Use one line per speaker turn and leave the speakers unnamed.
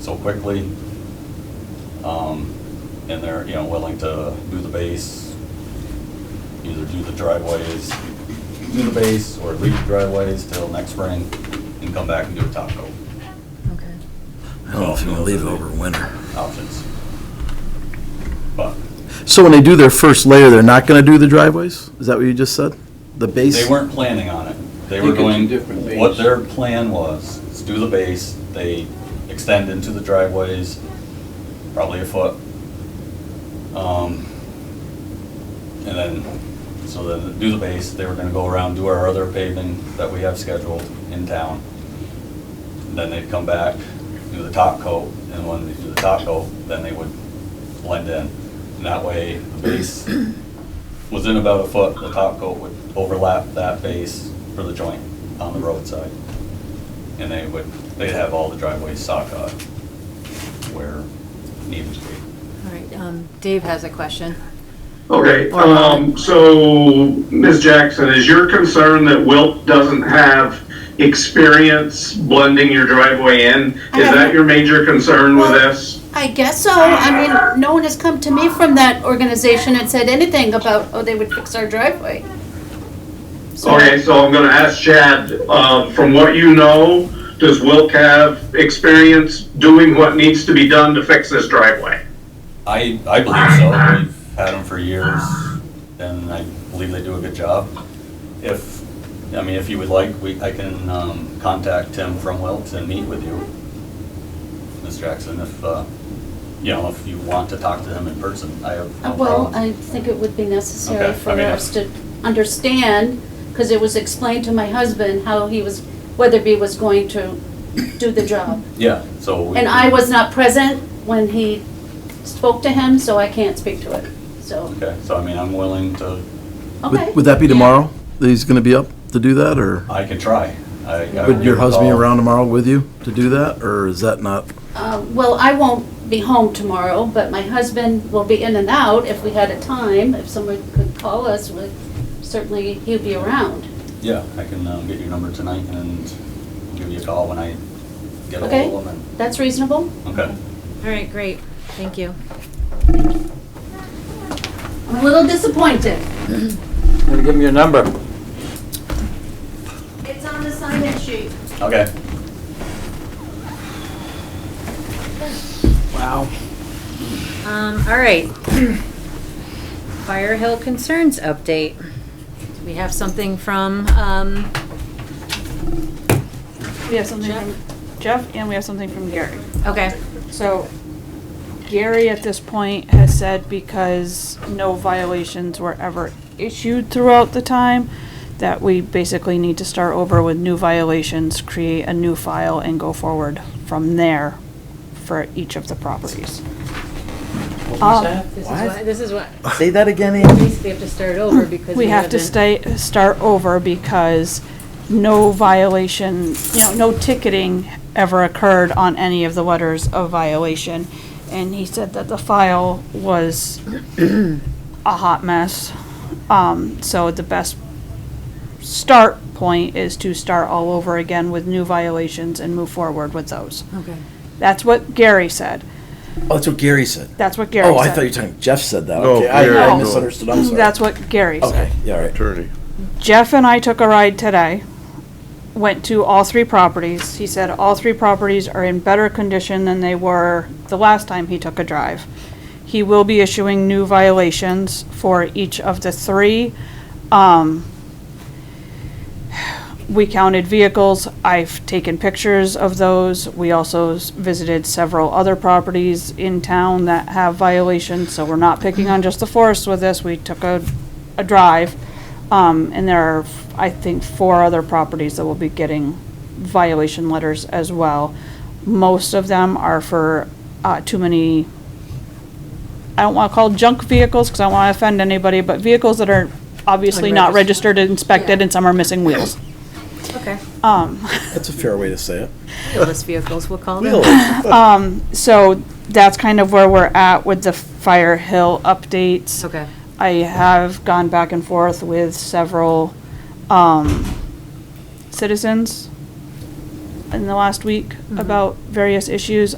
so quickly. Um, and they're, you know, willing to do the base, either do the driveways, do the base, or leave the driveways till next spring and come back and do a top coat,
Okay.
I don't know if you want to leave it over winter.
options. But
So when they do their first layer, they're not going to do the driveways? Is that what you just said? The base?
They weren't planning on it. They
They
were
could do
going,
different
what
base.
their plan was, is do the base, they extend into the driveways, probably a foot. Um, And then, so then do the base, they were gonna go around, do our other paving that we have scheduled in town. Then they'd come back, do the top coat, and when they do the top coat, then they would blend in. And that way, the base within about a foot, the top coat would overlap that base for the joint on the roadside. And they would, they'd have all the driveways sock up where needed to be.
All right, um, Dave has a question.
Okay,
Or not.
um, so, Ms. Jackson, is your concern that Wilt doesn't have experience blending your driveway in?
I
Is that
haven't-
your major concern with
Well-
this?
I guess so. I mean, no one has come to me from that organization and said anything about, oh, they would fix our driveway.
Oh,
So-
Okay, so I'm gonna ask Chad, uh, from what you know, does Wilt have experience doing what needs to be done to fix this driveway?
I, I believe so. We've had them for years and I believe they do a good job. If, I mean, if you would like, we, I can, um, contact Tim from Wilt and meet with you. Ms. Jackson, if, uh, you know, if you want to talk to him in person, I have no
Uh, Well,
problem.
I think it would be necessary
Okay, I
for
mean,
us to understand, because it was explained to my husband how he was, Weatherby was going to do the job.
Yeah, so. we
And
can-
I was not present when he spoke to him, so I can't speak to it, so,
Okay, so I mean, I'm willing to,
Would-
okay.
Would that be
Yeah.
tomorrow? That he's going to be up to do that, or
I can try. I- I will
would your
give a
husband be
call.
around tomorrow with you to do that, or is that not?
Uh, Well, I won't be home tomorrow, but my husband will be in and out if we had a time. If someone could call us, would- certainly he'd be around.
Yeah, I can um, get your number tonight and give you a call when I get a
Okay.
hold of him.
That's reasonable?
Okay.
All right, great, thank you.
I'm a little disappointed.
I'm gonna give him your number.
It's on the sign-in sheet.
Okay.
Wow.
Um, all right. Fire Hill Concerns update. Do we have something from, um,
We have something from Jeff and we have something from Gary.
okay,
So Gary at this point has said because no violations were ever issued throughout the time, that we basically need to start over with new violations, create a new file and go forward from there for each of the properties.
What
Um,
was that?
this is
What?
what, this is what,
Say that again,
basically have to start over because we
We have to
haven't-
stay, start over because no violation, you know, no ticketing ever occurred on any of the letters of violation. And he said that the file was a hot mess. Um, so the best start point is to start all over again with new violations and move forward with those.
Okay.
That's what Gary said.
Oh, that's what Gary said.
That's what Gary said.
Oh, I thought you were talking, Jeff said that.
No,
Okay, I- I
Gary.
misunderstood, I'm sorry.
That's what Gary said.
Okay, yeah, all right.
Attorney.
Jeff and I took a ride today, went to all three properties. He said all three properties are in better condition than they were the last time he took a drive. He will be issuing new violations for each of the three. Um, we counted vehicles. I've taken pictures of those. We also s- visited several other properties in town that have violations, so we're not picking on just the forest with this. We took a, a drive. Um, and there are, I think, four other properties that will be getting violation letters as well. Most of them are for, uh, too many, I don't wanna call junk vehicles, cause I don't wanna offend anybody, but vehicles that are obviously not
Unregistered.
registered and inspected
Yeah.
and some are missing wheels.
Okay.
That's a fair way to say it.
Wheelless vehicles, we'll call them.
Really?
So that's kind of where we're at with the Fire Hill updates.
Okay.
I have gone back and forth with several, um, citizens in the last week about various issues.